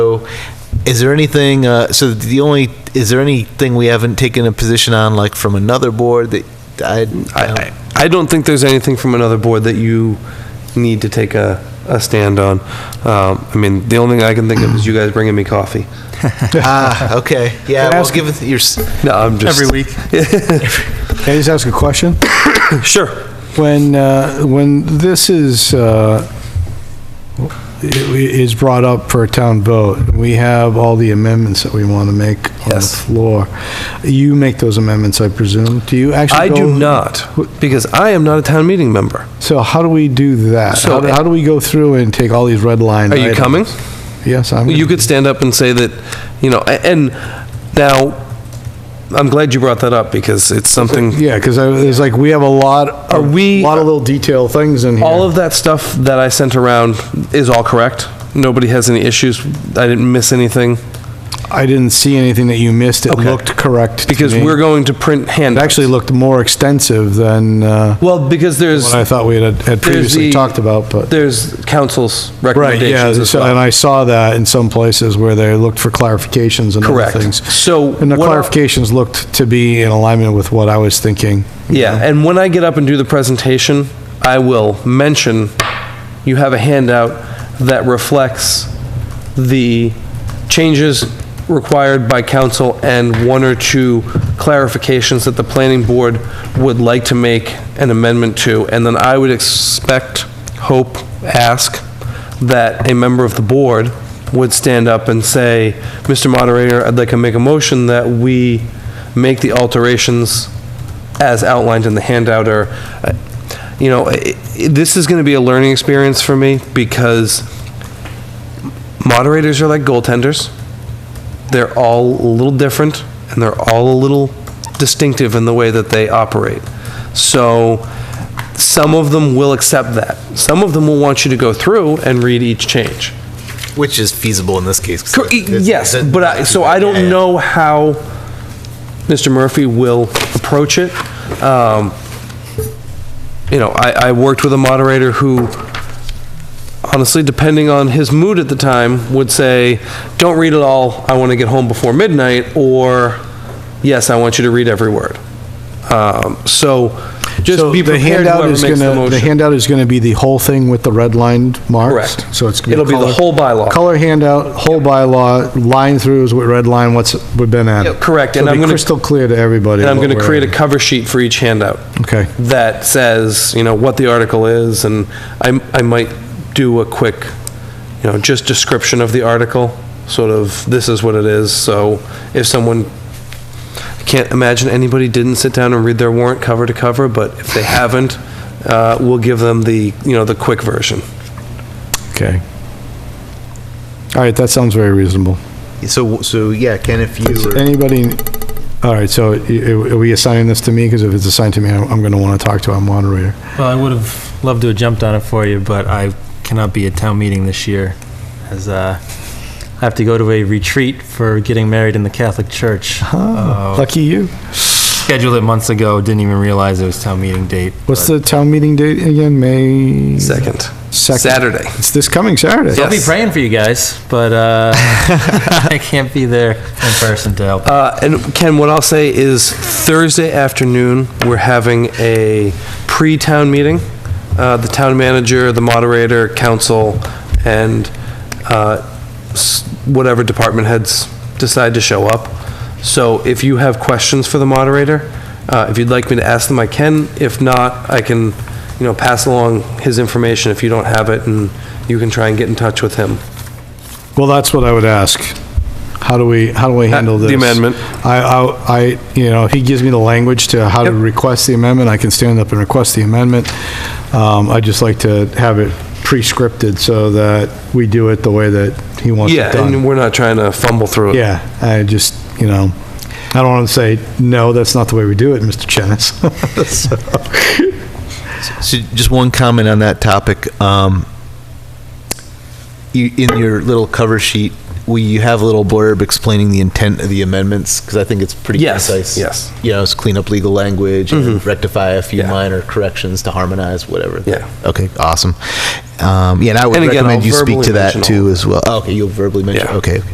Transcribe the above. So is there anything, uh, so the only, is there anything we haven't taken a position on, like from another board that I, I, I I don't think there's anything from another board that you need to take a, a stand on. Um, I mean, the only thing I can think of is you guys bringing me coffee. ah, okay, yeah, well, given your, s- No, I'm just. Every week. Can I just ask a question? Sure. When, uh, when this is, uh, i- is brought up for a town vote, we have all the amendments that we want to make on the Yes. floor. You make those amendments, I presume? Do you actually? I do go- not, because I am not a town meeting member. So how do we do that? So- How do- how do we go through and take all these red line Are you items? coming? Yes, I'm. You could stand up and say that, you know, a- and now, I'm glad you brought that up because it's something, Yeah, because it's like, we have a lot, a Are we- uh, lot of little detail things in here. all of that stuff that I sent around is all correct. Nobody has any issues. I didn't miss anything I didn't see anything that you missed. It Okay. looked correct to because me. we're going to print It handouts. actually looked more extensive than uh, Well, because there's. what I thought we had had previously the- talked about, but. There's council's Right, yeah, recommendations as so- and well. I saw that in some places where they looked for clarifications and other Correct. things. So And the what I- clarifications looked to be in alignment with what I was thinking. Yeah, and when I get up and do the presentation, I will mention, you have a handout that reflects the changes required by council and one or two clarifications that the planning board would like to make an amendment to. And then I would expect, hope, ask, that a member of the board would stand up and say, Mr. Moderator, I'd like to make a motion that we make the alterations as outlined in the handout or, uh, you know, i- i- this is going to be a learning experience for me because moderators are like goaltenders. They're all a little different and they're all a little distinctive in the way that they operate. So some of them will accept that. Some of them will want you to go through and read each change. which is feasible in this case. 'cause Cor- it's- it's- Yes, it's- but I, so I Yeah, don't yeah. know how Mr. Murphy will approach it. Um, You know, I, I worked with a moderator who, honestly, depending on his mood at the time, would say, don't read it all, I want to get home before midnight, or, yes, I want you to read every word. Um, So just So be the prepared handout whoever is makes the gonna- The motion. handout is going to be the whole thing with the red lined marks? Correct. So it's. gonna It'll be the color- whole bylaw. Color handout, whole bylaw, line throughs with red line, what's been Yeah, added. correct, So and it'll I'm be gonna- Crystal clear to everybody. And I'm what going to we're create a adding. cover sheet for each handout. Okay. that says, you know, what the article is, and I, I might do a quick, you know, just description of the article, sort of, this is what it is, so if someone, I can't imagine anybody didn't sit down and read their warrant cover to cover, but if they haven't, uh, we'll give them the, you know, the quick version. Okay. All right, that sounds very reasonable. So, so, yeah, Ken, if Does you, Anybody, all right, so i- i- are we assigning this to me? Because if it's assigned to me, I'm going to want to talk to our moderator. Well, I would have loved to have jumped on it for you, but I cannot be at town meeting this year, as uh, I have to go to a retreat for getting married in the Catholic Church. Uh, Lucky you. Scheduled it months ago, didn't even realize it was town meeting date. What's but the town meeting date again? May? Second. Second. Saturday. It's this coming Saturday. Yeah. I'll be Yes. praying for you guys, but uh, I can't be there in person to help. Uh, And Ken, what I'll say is Thursday afternoon, we're having a pre-town meeting. Uh, The town manager, the moderator, council, and uh, s- whatever department heads decide to show up. So if you have questions for the moderator, uh, if you'd like me to ask them, I can. If not, I can, you know, pass along his information if you don't have it, and you can try and get in touch with him. Well, that's what I would ask. How do we, how do we handle Uh, the this? amendment. I, I, I- you know, if he gives me the language to how to Yep. request the amendment, I can stand up and request the amendment. Um, I'd just like to have it pre-scripted so that we do it the way that he wants it Yeah, and done. we're not trying to fumble through it. Yeah, I just, you know, I don't want to say, no, that's not the way we do it, Mr. Chenis. So- so just one comment on that topic. Um, you, in your little cover sheet, w- will you have a little blurb explaining the intent of the amendments? Because I think it's pretty Yes, concise. yes. Mm-hmm. You know, it's clean up legal language, and rectify a few Yeah. minor corrections to harmonize whatever. Yeah. Okay, awesome. Um, yeah, and I would And again, recommend I'll you speak verbally to that mention all too as well. Oh, okay, you'll verbally mention. Yeah. Okay,